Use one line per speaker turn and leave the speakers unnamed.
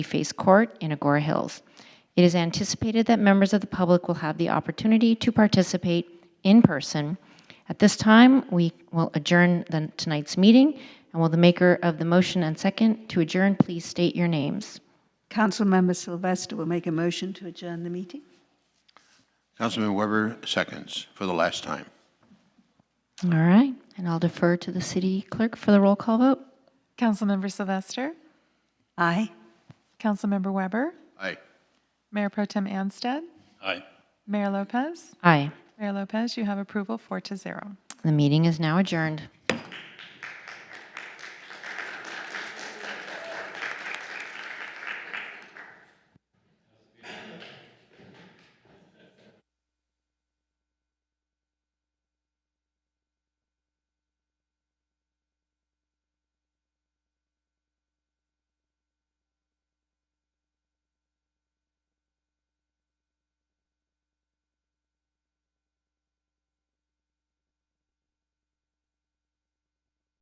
Face Court in Agora Hills. It is anticipated that members of the public will have the opportunity to participate in person. At this time, we will adjourn the- tonight's meeting, and will the maker of the motion and second to adjourn please state your names?
Councilmember Sylvester will make a motion to adjourn the meeting.
Councilman Weber seconds for the last time.
All right, and I'll defer to the city clerk for the roll call vote.
Councilmember Sylvester,
Aye.
Councilmember Weber,
Aye.
Mayor Pro Tem Anstead,
Aye.
Mayor Lopez.
Aye.
Mayor Lopez, you have approval four to zero.
The meeting is now adjourned.